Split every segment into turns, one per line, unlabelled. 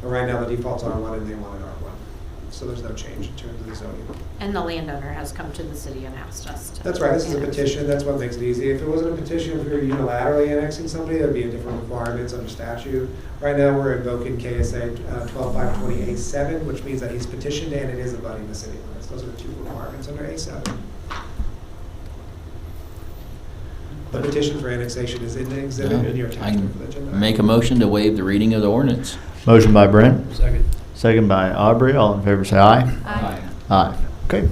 But right now, the default's R1 and they want it R1. So there's no change in terms of the zoning.
And the landowner has come to the city and asked us to.
That's right, this is a
annex.
petition, that's what makes it easy. If it wasn't a petition, if we were unilaterally annexing somebody, that'd be a different requirements under statute. Right now, we're invoking KSA 12528-7, which means that he's petitioned and it is abutting the city limits. Those are the two requirements under A7. The petition for annexation is in the exhibit in your
I
attached
can
agenda.
Make a motion to waive the reading of the ordinance.
Motion by Brent,
Second.
second by Aubrey. All in favor, say aye.
Aye.
Aye. Okay.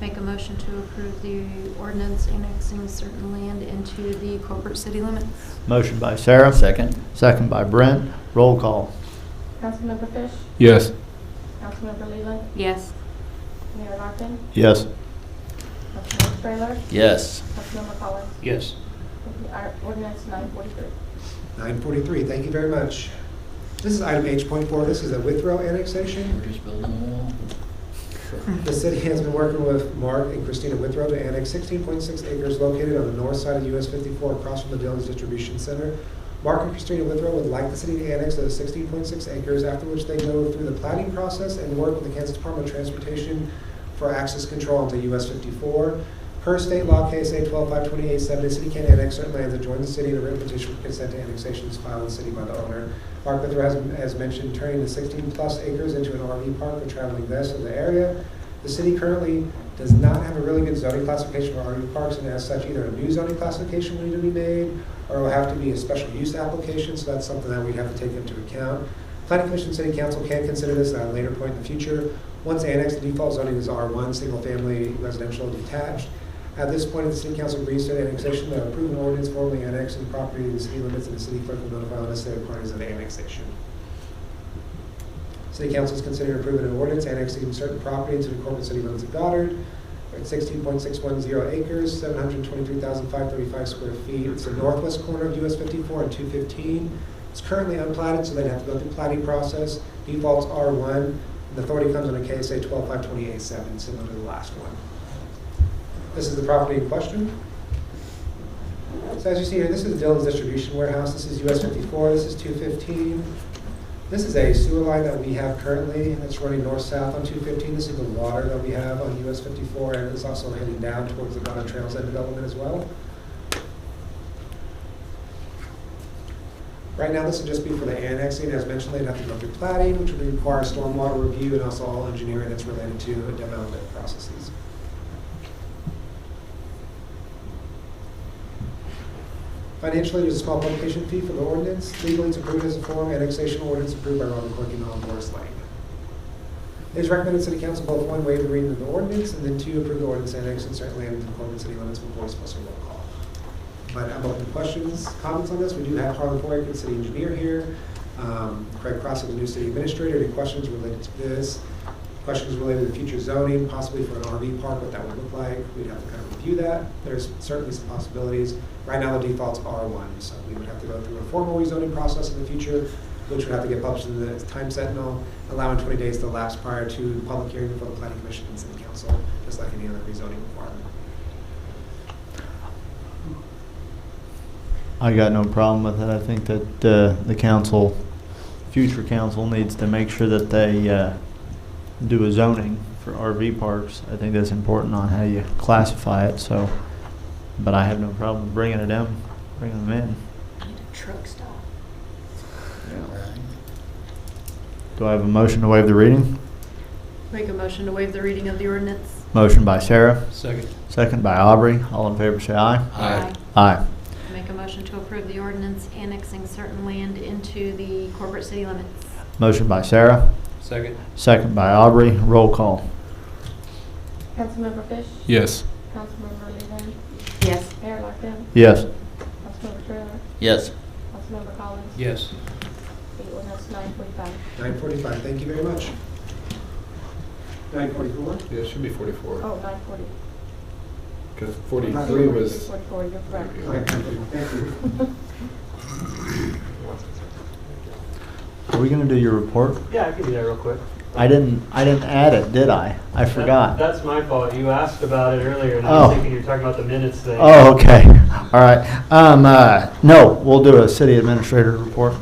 Make a motion to approve the ordinance annexing certain land into the corporate city limits.
Motion by Sarah,
Second?
second by Brent. Roll call.
Councilmember Fish,
Yes.
Councilmember Leland,
Yes,
Mayor Larkin,
Yes.
Councilmember Frayler,
Yes.
Councilmember Collins.
Yes.
Our ordinance nine forty-three.
943, thank you very much. This is item H.4, this is a Withrow annexation.
We're just building a wall.
The city has been working with Mark and Christina Withrow to annex 16.6 acres located on the north side of US 54 across from the Dillon's Distribution Center. Mark and Christina Withrow would like the city to annex those 16.6 acres, after which they go through the plating process and work with the Kansas Department of Transportation for access control into US 54. Per state law, KSA 12528-7, the city can annex certain lands adjoining the city, and a written petition for consent to annexation is filed in the city by the owner. Mark Withrow has, has mentioned turning the 16-plus acres into an RV park for traveling vests in the area. The city currently does not have a really good zoning classification for RV parks, and as such, either a new zoning classification will need to be made, or it'll have to be a special use application, so that's something that we'd have to take into account. Planning Commission, City Council can consider this at a later point in the future. Once annexed, the default zoning is R1, single-family residential detached. At this point, if the City Council agrees to an annexation, they'll approve an ordinance formally annexing the property to the city limits, and the city clerk will notify the necessary parties of the annexation. City Council is considering approving an ordinance annexing certain property into the corporate city limits of Goddard at sixteen point six one zero acres, seven hundred twenty-three thousand five thirty-five square feet. It's the northwest corner of US fifty-four and two fifteen. It's currently unplatted, so they'd have to go through plating process. Default's R one, and the authority comes under KSA twelve five twenty-eight seven, similar to the last one. This is the property in question. So as you see here, this is Dillon's Distribution Warehouse, this is US fifty-four, this is two fifteen. This is a sewer line that we have currently that's running north-south on 215. This is the water that we have on US 54, and it's also heading down towards the Ghana Trails End development as well. Right now, this would just be for the annexing. As mentioned, they'd have to go through plating, which would require stormwater review and also all engineering that's related to development processes. Financially, there's a small publication fee for the ordinance. Legally, it's approved as a form. Annexation ordinance approved by Robert Clerk and Alan Morris Lang. It is recommended City Council both one, waive the reading of the ordinance, and then two, approve the ordinance annexing certain land within the corporate city limits with voice plus a roll call. But I'm open to questions, comments on this. We do have Harlan Boyd, the city engineer here. Um, Craig Cross, the new city administrator. Any questions related to this? Questions related to future zoning, possibly for an RV park, what that would look like. We'd have to kind of review that. There's certainly some possibilities. Right now, the default's R1, so we would have to go through a formal rezoning process in the future, which would have to get published in the Time Sentinel, allowing 20 days to elapse prior to public hearing before the planning commission and city council, just like any other rezoning requirement.
I got no problem with it. I think that uh, the council, future council needs to make sure that they uh, do a zoning for RV parks. I think that's important on how you classify it, so, but I have no problem bringing it in, bringing them
I need a truck stop.
in. Do I have a motion to waive the reading?
Make a motion to waive the reading of the ordinance.
Motion by Sarah,
Second.
second by Aubrey. All in favor, say aye.
Aye.
Aye.
Make a motion to approve the ordinance annexing certain land into the corporate city limits.
Motion by Sarah,
Second.
second by Aubrey. Roll call.
Councilmember Fish,
Yes.
Councilmember Leland,
Yes,
Mayor Larkin,
Yes.
Councilmember Frayler,
Yes.
Councilmember Collins.
Yes.
The ordinance nine forty-five.
9:45, thank you very much. 9:44?
Yeah, it should be 44,
Oh, nine forty.
because 43 was,
Forty-four, you're correct.
Thank you. Thank you.
Are we gonna do your report?
Yeah, I can do that real quick.
I didn't, I didn't add it, did I? I forgot.
That's my fault. You asked about it earlier, and I
Oh.
was thinking you were talking about the minutes thing.
Oh, okay, all right. Um, uh, no, we'll do a city administrator report.